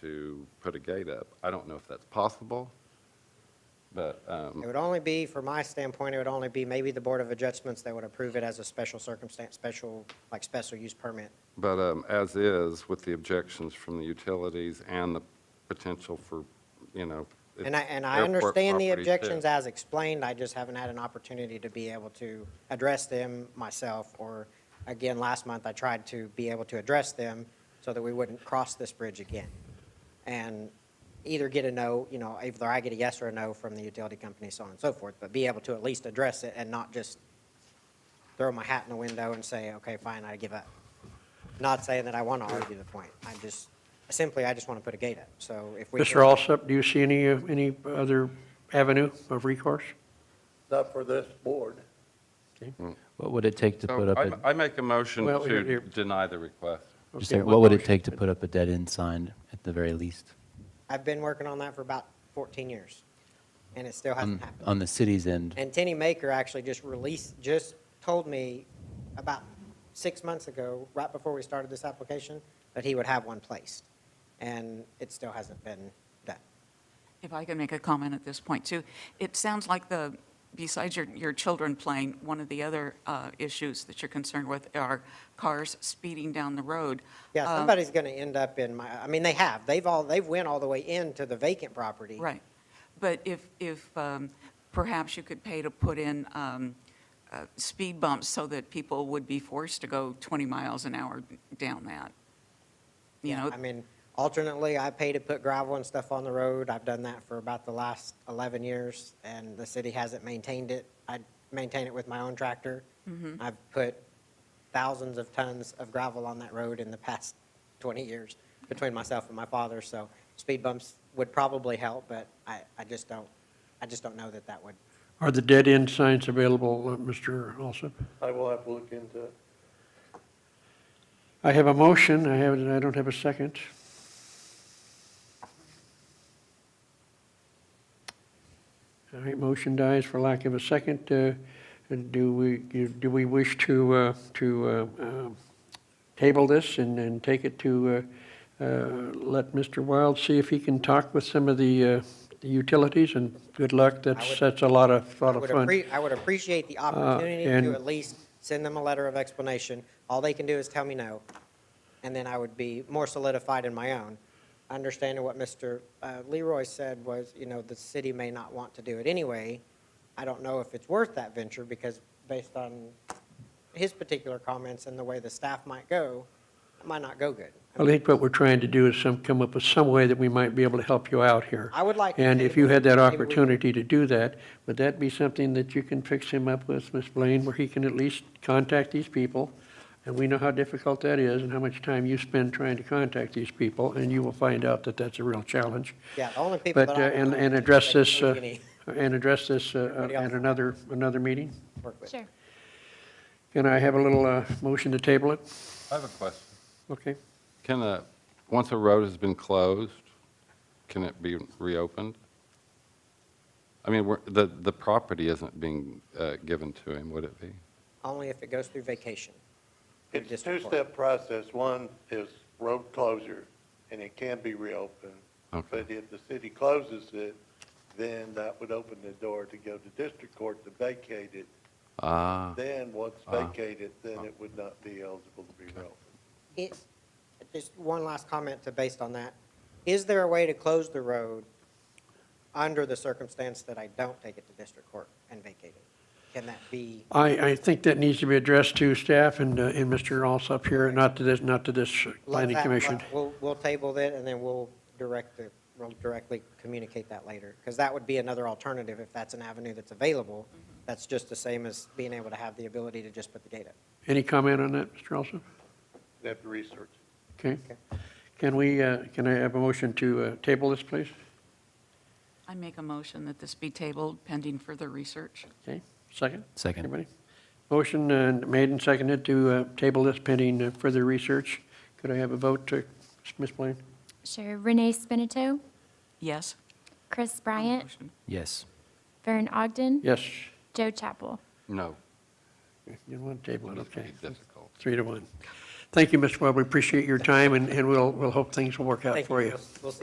to put a gate up. I don't know if that's possible, but, um, It would only be, from my standpoint, it would only be maybe the Board of Adjustments that would approve it as a special circumstance, special, like special use permit. but um, as is, with the objections from the utilities and the potential for, you know. it's And I, and I airport understand the property, too. objections as explained, I just haven't had an opportunity to be able to address them myself, or, again, last month, I tried to be able to address them so that we wouldn't cross this bridge again. And either get a no, you know, either I get a yes or a no from the utility company, so on and so forth, but be able to at least address it and not just throw my hat in the window and say, okay, fine, I give up. Not saying that I want to argue the point, I just, simply, I just want to put a gate up, so if we. Mr. Alsup, do you see any, uh, any other avenue of recourse? not for this board. What would it take to put So up, I a I make a motion Well, here- to here. deny the request. just Okay, a- what would it motion? take to put up a dead-end sign at the very least? I've been working on that for about 14 years, and it still hasn't On, happened. on the city's end? And Tenny Maker actually just released, just told me about six months ago, right before we started this application, that he would have one placed, and it still hasn't been done. If I could make a comment at this point, too. It sounds like the, besides your, your children playing, one of the other uh, issues that you're concerned with are cars speeding down the road. Yeah, Uh, somebody's going to end up in my, I mean, they have, they've all, they've went all the way into the vacant property. Right. But if, if um, perhaps you could pay to put in um, uh, speed bumps so that people would be forced to go 20 miles an hour down that. You know, I mean, alternately, I pay to put gravel and stuff on the road. I've done that for about the last 11 years, and the city hasn't maintained it. I maintain it with my own tractor. Mm-hmm. I've put thousands of tons of gravel on that road in the past 20 years between myself and my father, so speed bumps would probably help, but I, I just don't, I just don't know that that would. Are the dead-end signs available, uh, Mr. Alsup? I will have to look into it. I have a motion, I have, I don't have a second. All right, motion dies for lack of a second. Uh, and Do we, do we wish to, uh, to uh, um, table this and, and take it to, uh, uh, let Mr. Wild see if he can talk with some of the uh, the utilities? And good luck, I would- that's, that's a lot of, lot I of would fun. Uh, appre- I would appreciate the opportunity to and- at least send them a letter of explanation. All they can do is tell me no, and then I would be more solidified in my own. Understanding what Mr. uh, Leroy said was, you know, the city may not want to do it anyway. I don't know if it's worth that venture, because based on his particular comments and the way the staff might go, it might not go good. I think what we're trying to do is some, come up with some way that we might be able to help you out here. I would like to And say if you had that maybe we could- opportunity to do that, would that be something that you can fix him up with, Ms. Blaine, where he can at least contact these people? And we know how difficult that is and how much time you spend trying to contact these people, and you will find out that that's a real challenge. Yeah, the only people But, that uh, I. and, and address this, uh, Any and address this uh, Anybody at else? another, another meeting? work with. Sure. Can I have a little uh, motion to table it? I have a question. Okay. Can a, once a road has been closed, can it be reopened? I mean, we're- the, the property isn't being uh, given to him, would it be? Only if it goes through vacation. Through It's a district court. two-step process. One is road closure, and it can be reopened. Okay. But if the city closes it, then that would open the door to go to district court to vacate it. Ah, Then, once Uh-huh. Ah. vacated, then it would not be eligible to be reopened. It, just one last comment to, based on that. Is there a way to close the road under the circumstance that I don't take it to district court and vacate it? Can that be, I, I think that needs to be addressed to staff and, uh, and Mr. Alsop here, not to this, not to this let planning that- commission. let- We'll, we'll table that, and then we'll direct the, we'll directly communicate that later. Because that would be another alternative if that's an avenue that's available. That's just the same as being able to have the ability to just put the gate up. Any comment on that, Mr. Alsop? They have to research. Okay. Can we, uh, can I have a motion to uh, table this, please? I make a motion that this be tabled pending further research. Okay, second? Second. Anybody? Motion uh, made and seconded to uh, table this pending uh, further research. Could I have a vote to, Ms. Blaine? Sure. Renee Spinato, Yes? Chris on the Bryant, motion. Yes. Vern Ogden, Yes. Joe Chapel. no. You want to table it, It's gonna okay. be difficult. Three to one. Thank you, Mr. Webb. We appreciate your time, and, and we'll, we'll hope things will work out Thank for you. We'll see